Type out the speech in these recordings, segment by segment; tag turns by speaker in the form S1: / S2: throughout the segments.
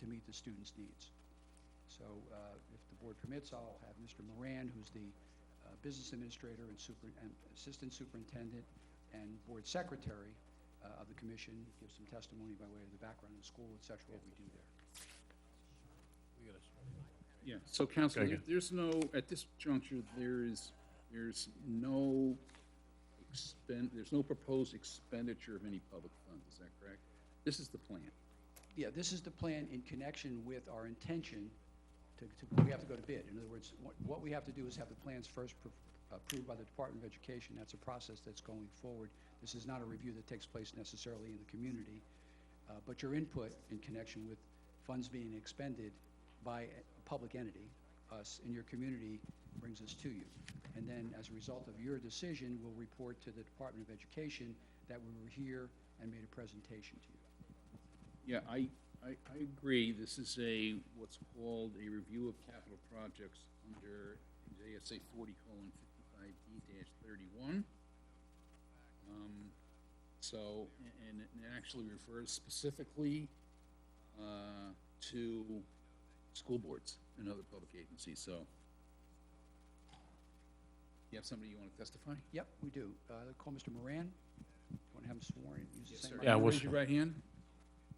S1: to meet the students' needs. So uh, if the board permits, I'll have Mr. Moran, who's the uh, business administrator and super- and assistant superintendent and board secretary uh, of the commission, give some testimony by way of the background of the school, et cetera, what we do there.
S2: Yeah, so council,
S3: Okay,
S2: there-
S3: good.
S2: there's no, at this juncture, there is, there's no expend, there's no proposed expenditure of any public funds, is that correct? This is the plan.
S1: Yeah, this is the plan in connection with our intention to, to, we have to go to bid. In other words, what, what we have to do is have the plans first pro- approved by the Department of Education. That's a process that's going forward. This is not a review that takes place necessarily in the community. Uh, but your input in connection with funds being expended by a public entity, us, in your community, brings us to you. And then, as a result of your decision, we'll report to the Department of Education that we were here and made a presentation to you.
S2: Yeah, I, I, I agree, this is a, what's called a review of capital projects under JSA forty colon fifty-five D dash thirty-one. Um, so, a- and it actually refers specifically, uh, to school boards and other public agencies, so. You have somebody you wanna testify?
S1: Yep, we do. Uh, Call Mr. Moran. Want to have him sworn? Use the same
S3: Yeah,
S1: mic.
S3: we'll
S2: Raise your
S3: swear.
S2: right hand.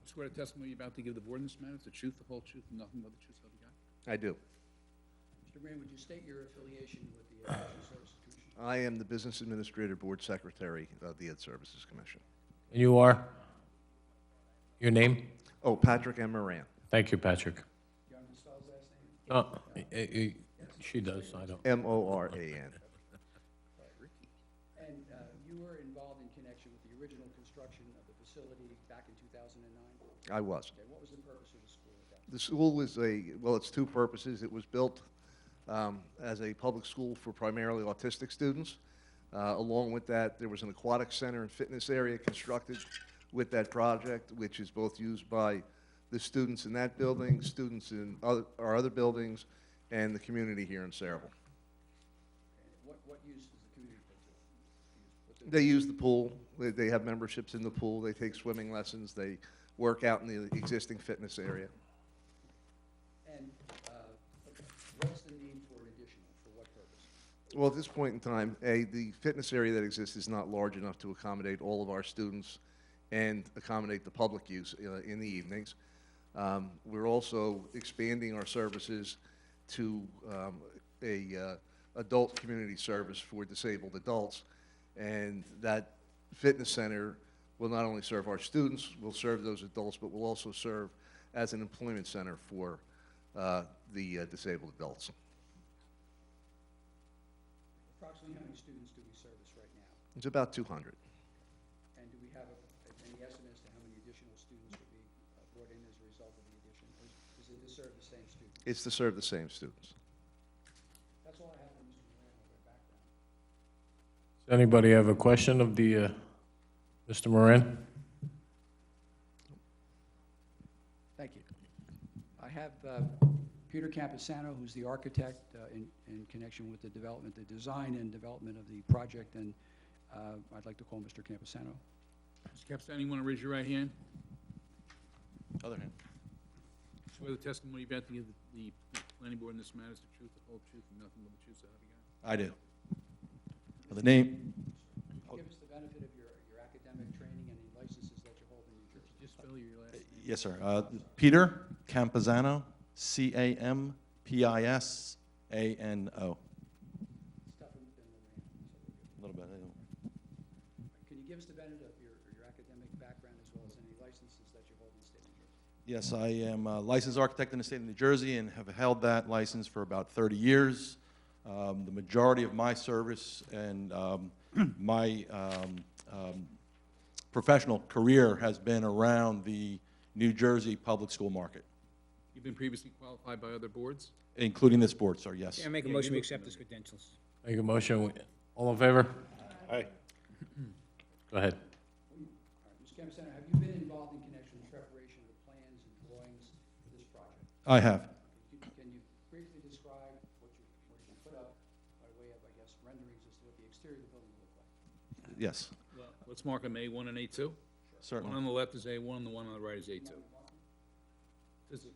S2: Swear to testimony you're about to give the board in this matter, is the truth, the whole truth, and nothing but the truth, so help you God.
S4: I do.
S1: Mr. Moran, would you state your affiliation with the Education Services Commission?
S4: I am the Business Administrator Board Secretary of the Ed Services Commission.
S3: And you are? Your name?
S4: Oh, Patrick M. Moran.
S3: Thank you, Patrick.
S1: You want me to spell his last name?
S3: Uh, eh, eh, eh, She does, I don't.
S4: M-O-R-A-N.
S1: And uh, you were involved in connection with the original construction of the facility back in 2009? Okay,
S4: I was.
S1: what was the purpose of the school at that?
S4: The school is a, well, it's two purposes. It was built um, as a public school for primarily autistic students. Uh, Along with that, there was an aquatic center and fitness area constructed with that project, which is both used by the students in that building, students in other- our other buildings, and the community here in Saraville.
S1: And What, what use does the community put to it?
S4: They use the pool, they, they have memberships in the pool, they take swimming lessons, they work out in the existing fitness area.
S1: And uh, what's the need for an additional, for what purpose?
S4: Well, at this point in time, A, the fitness area that exists is not large enough to accommodate all of our students and accommodate the public use uh, in the evenings. Um, We're also expanding our services to um, a uh, adult community service for disabled adults. And that fitness center will not only serve our students, will serve those adults, but will also serve as an employment center for uh, the uh, disabled adults.
S1: Approximately how many students do we service right now?
S4: It's about 200.
S1: And do we have a- any estimate as to how many additional students would be uh, brought in as a result of the addition? Or is- is it to serve the same student?
S4: It's to serve the same students.
S1: That's all I have for Mr. Moran on their background.
S3: Does anybody have a question of the, uh, Mr. Moran?
S1: Thank you. I have uh, Peter Campusano, who's the architect uh, in in connection with the development, the design and development of the project, and uh, I'd like to call Mr. Campusano.
S2: Mr. Capstan, you want to raise your right hand?
S5: Other hand.
S2: Swear the testimony you're about to give the the planning board in this matter is the truth, the whole truth, and nothing but the truth, so help you God.
S5: I do. Well, The name,
S1: Give us the benefit of your your academic training and the licenses that you hold in New Jersey.
S2: Could you Just spell your last name.
S5: yes, sir. Uh, Peter Campizano, C-A-M-P-I-S-A-N-O.
S1: Stefan and Moran. so we're good.
S5: A little bit, I don't-
S1: Can you give us the benefit of your your academic background as well as any licenses that you hold in the state of New Jersey?
S5: Yes, I am a licensed architect in the state of New Jersey and have held that license for about 30 years. Um, The majority of my service and um, my um, um, professional career has been around the New Jersey public school market,
S2: You've been previously qualified by other boards?
S5: including this board, sir, yes.
S6: Yeah, make a motion, we accept his credentials.
S3: Make a motion. We- All in favor?
S7: Aye.
S3: Go ahead.
S1: All right, Mr. Campusano, have you been involved in connection with preparation of the plans and drawings for this project?
S5: I have.
S1: Can you- Can you briefly describe what you, what you put up by way of, I guess, renderings as to what the exterior of the building will look like?
S5: Yes,
S2: Let's mark them A1 and A2. One
S5: certainly.
S2: on the left is A1, the one on the right is A2.